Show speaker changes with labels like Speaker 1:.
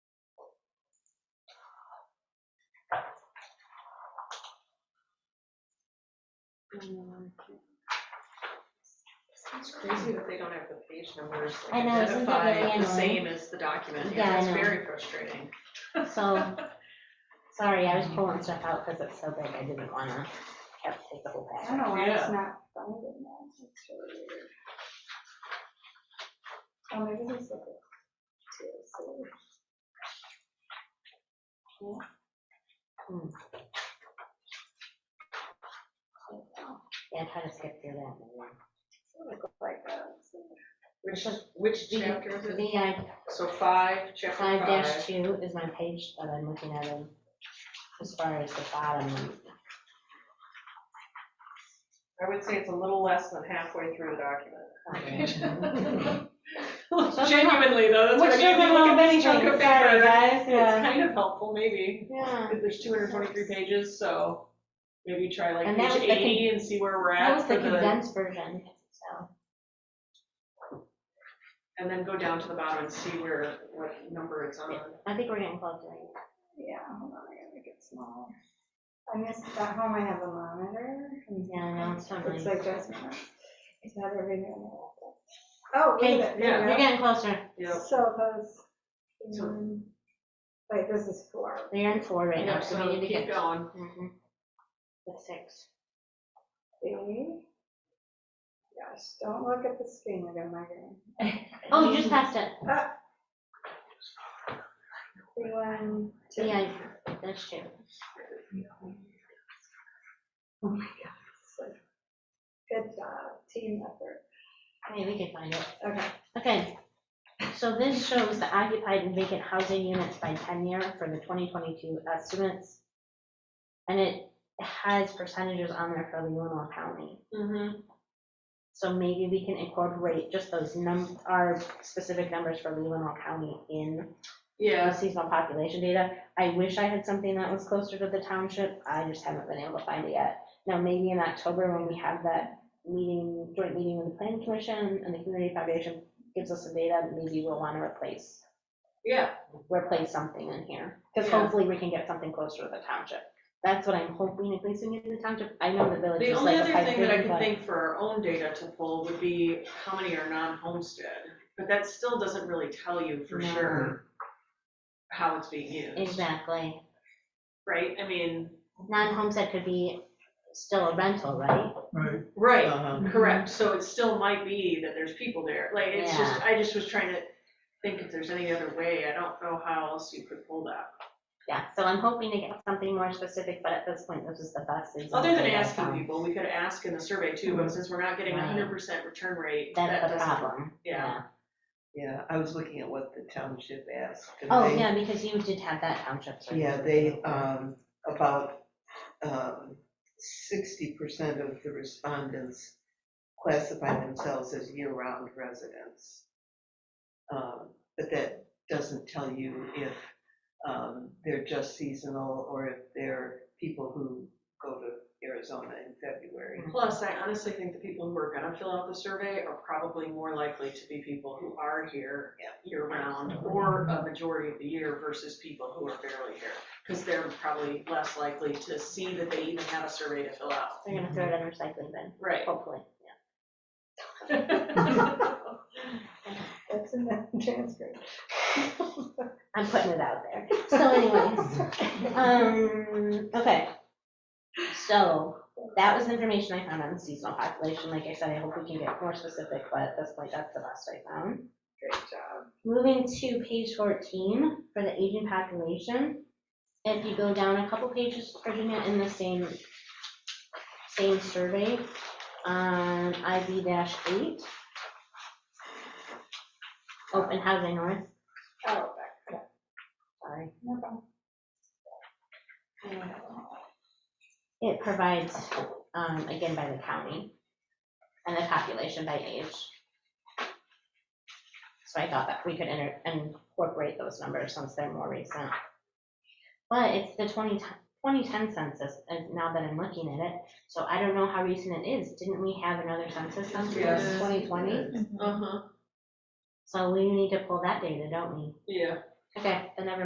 Speaker 1: Um,
Speaker 2: It's crazy that they don't have the page numbers like,
Speaker 1: I know, isn't that really
Speaker 2: identified the
Speaker 1: annoying?
Speaker 2: same as the document.
Speaker 1: Yeah, I
Speaker 2: Yeah, it's
Speaker 1: know.
Speaker 2: very frustrating.
Speaker 1: So, sorry, I was pulling stuff out because it's so big, I didn't wanna have to take the whole
Speaker 3: I
Speaker 1: packet.
Speaker 3: don't know why it's
Speaker 2: Yeah.
Speaker 3: not finding that, it's really weird. Oh, maybe this is it. too, so- Yeah.
Speaker 1: Hmm.
Speaker 3: So,
Speaker 1: Yeah, try to skip through that. maybe.
Speaker 3: it looks like that, so-
Speaker 2: Which,
Speaker 1: Just-
Speaker 2: which
Speaker 1: Do you-
Speaker 2: chapter is it?
Speaker 1: VI
Speaker 2: So five, chapter
Speaker 1: five dash
Speaker 2: five.
Speaker 1: two is my page that I'm looking at, and as far as the bottom,
Speaker 2: I would say it's a little less than halfway through the document.
Speaker 1: Doesn't
Speaker 2: Genuinely though, that's what I
Speaker 1: Which
Speaker 2: mean. You
Speaker 1: doesn't
Speaker 2: look
Speaker 1: mean
Speaker 2: at this chunk of
Speaker 1: anything, sorry,
Speaker 2: paper,
Speaker 1: guys,
Speaker 2: It's
Speaker 1: yeah.
Speaker 2: kind of helpful, maybe.
Speaker 1: yeah.
Speaker 2: If There's two hundred and twenty-three pages, so maybe try like
Speaker 1: And that
Speaker 2: page
Speaker 1: was the con-
Speaker 2: eighty and see where we're
Speaker 1: That
Speaker 2: at
Speaker 1: was the
Speaker 2: for the,
Speaker 1: condensed version, so.
Speaker 2: and then go down to the bottom and see where, what number it's on.
Speaker 1: I think we're getting close right now.
Speaker 3: Yeah, hold on, I gotta make it smaller. I missed, at home I have a monitor. and
Speaker 1: Yeah, I know, it's not really.
Speaker 3: It's like just, it's not everything on the laptop. Oh,
Speaker 1: Okay,
Speaker 3: wait,
Speaker 2: yeah.
Speaker 1: we're
Speaker 3: there
Speaker 1: getting closer.
Speaker 3: you
Speaker 2: Yep.
Speaker 3: go. So those,
Speaker 2: So-
Speaker 3: um, wait, this is four.
Speaker 1: They're in four right now,
Speaker 2: Yeah,
Speaker 1: so we need to
Speaker 2: keep
Speaker 1: get.
Speaker 2: going.
Speaker 1: Mhm. The six.
Speaker 3: See? Gosh, don't look at the screen, you're gonna migraine.
Speaker 1: Oh, you just passed it.
Speaker 3: See one, two.
Speaker 1: Yeah, that's two.
Speaker 3: Oh my God. it's like- Good job, team effort.
Speaker 1: Okay, we can find it.
Speaker 3: Okay,
Speaker 1: Okay. So this shows the occupied and vacant housing units by tenure for the 2022 estimates. And it has percentages on there for Leelanau County. Mm-hmm.
Speaker 2: Mhm.
Speaker 1: So maybe we can incorporate just those num, our specific numbers for Leelanau County in the
Speaker 2: Yeah,
Speaker 1: seasonal population data. I wish I had something that was closer to the township, I just haven't been able to find it yet. Now, maybe in October, when we have that meeting, joint meeting with the planning commission and the community foundation gives us some data, maybe we'll wanna replace,
Speaker 2: yeah,
Speaker 1: replace something in here. Cause
Speaker 2: Yeah.
Speaker 1: hopefully we can get something closer to the township. That's what I'm hoping, if we can get to the township, I know the village
Speaker 2: the
Speaker 1: is
Speaker 2: only
Speaker 1: like a
Speaker 2: other
Speaker 1: pipe
Speaker 2: thing that I
Speaker 1: dream,
Speaker 2: could
Speaker 1: but-
Speaker 2: think for our own data to pull would be how many are non-homestead, but that still doesn't really tell you for
Speaker 1: No.
Speaker 2: sure how it's being used,
Speaker 1: Exactly.
Speaker 2: right? I mean,
Speaker 1: Non-homestead could be still a rental, right?
Speaker 4: Right.
Speaker 2: right,
Speaker 4: Uh-huh.
Speaker 1: mm-hmm.
Speaker 2: correct, so it still might be that there's people there, like, it's just, I just was trying to think if there's any other way, I don't know how else you could pull that.
Speaker 1: Yeah, so I'm hoping to get something more specific, but at this point, this is um, the best. example
Speaker 2: Other than
Speaker 1: that I
Speaker 2: asking
Speaker 1: found.
Speaker 2: people, we could ask in the survey too, but since we're not getting a
Speaker 1: Right.
Speaker 2: hundred percent return rate, that
Speaker 1: That's the
Speaker 2: doesn't,
Speaker 1: problem.
Speaker 2: yeah.
Speaker 4: Yeah, I was looking at what the township asked. and
Speaker 1: Oh,
Speaker 4: they-
Speaker 1: yeah, because you did have that township survey.
Speaker 4: Yeah, they, um, about, um, sixty percent of the respondents classify themselves as year-round residents. Um, But that doesn't tell you if, um, they're just seasonal or if they're people who go to Arizona in February.
Speaker 2: Plus, I honestly think the people who are gonna fill out the survey are probably more likely to be people who are here
Speaker 4: Yeah.
Speaker 2: year-round or a majority of the year versus people who are barely here. Because they're probably less likely to see that they even have a survey to fill out.
Speaker 1: They're gonna throw it in recycling bin,
Speaker 2: Right.
Speaker 1: hopefully, yeah.
Speaker 3: that's in the transcript.
Speaker 1: I'm putting it out there. So anyways, um, okay. So that was information I found on the seasonal population. Like I said, I hope we can get more specific, but at this point, that's the best I found.
Speaker 3: Great job.
Speaker 1: Moving to page 14 for the aging population. If you go down a couple pages, Virginia, in the same, same survey, on IB dash eight. Open housing north,
Speaker 3: Oh, back, yeah,
Speaker 1: sorry.
Speaker 3: no problem. Yeah.
Speaker 1: It provides, um, again, by the county and the population by age. So I thought that we could enter, incorporate those numbers since they're more recent. But it's the 20 t- 2010 census, and now that I'm looking at it, so I don't know how recent it is. Didn't we have another census since
Speaker 2: Yes.
Speaker 1: 2020?
Speaker 2: Uh-huh,
Speaker 1: So we need to pull that data, don't we?
Speaker 2: yeah.
Speaker 1: Okay, then never